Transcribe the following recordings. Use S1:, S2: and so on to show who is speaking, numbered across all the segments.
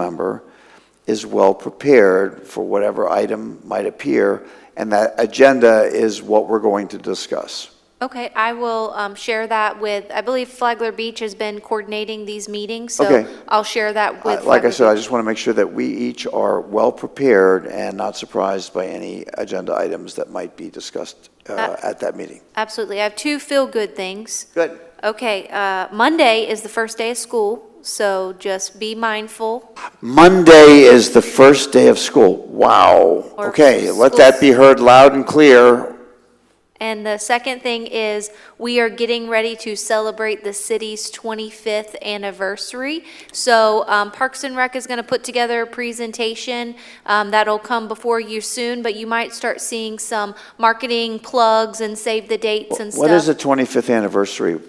S1: member is well-prepared for whatever item might appear, and that agenda is what we're going to discuss.
S2: Okay, I will um, share that with, I believe Flagler Beach has been coordinating these meetings,
S1: Okay.
S2: so I'll share
S1: I-
S2: that with.
S1: Like I
S2: Flagler
S1: said, I
S2: Beach.
S1: just want to make sure that we each are well-prepared and not surprised by any agenda items that might be discussed uh, at that meeting.
S2: Absolutely. I have two feel-good things.
S1: Good.
S2: Okay, uh, Monday is the first day of school, so just be mindful.
S1: Monday is the first day of school. Wow.
S2: Or
S1: Okay, let that be heard loud and clear.
S2: And the second thing is, we are getting ready to celebrate the city's 25th anniversary. So um, Parks and Rec is going to put together a presentation um, that'll come before you soon, but you might start seeing some marketing plugs and save the dates and stuff.
S1: What is the 25th anniversary?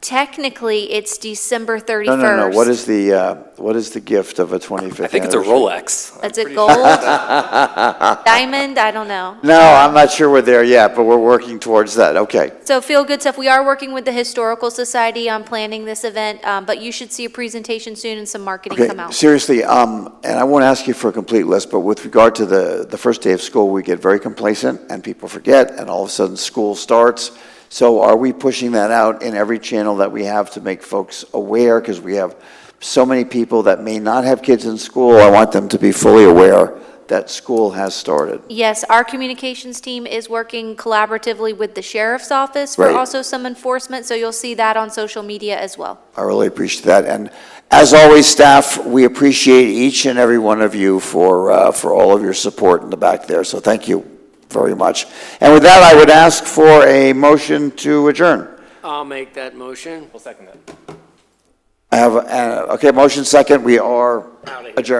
S2: Technically, it's December 31st.
S1: No, no, no, what is the, uh, what is the gift of a 25th anniversary?
S3: I think it's a Rolex.
S2: Is it gold? Diamond? I don't know.
S1: No, I'm not sure we're there yet, but we're working towards that. Okay.
S2: So feel good stuff. We are working with the Historical Society on planning this event, um, but you should see a presentation soon and some marketing
S1: Okay,
S2: come out.
S1: seriously, um, and I won't ask you for a complete list, but with regard to the, the first day of school, we get very complacent and people forget, and all of a sudden, school starts. So are we pushing that out in every channel that we have to make folks aware? Because we have so many people that may not have kids in school. I want them to be fully aware that school has started.
S2: Yes, our communications team is working collaboratively with the sheriff's office for
S1: Right.
S2: also some enforcement, so you'll see that on social media as well.
S1: I really appreciate that. And as always, staff, we appreciate each and every one of you for, uh, for all of your support in the back there. So thank you very much. And with that, I would ask for a motion to adjourn.
S4: I'll make that motion.
S3: We'll second that.
S1: I have, uh, okay, motion second, we are
S4: Outta here.
S1: adjourned.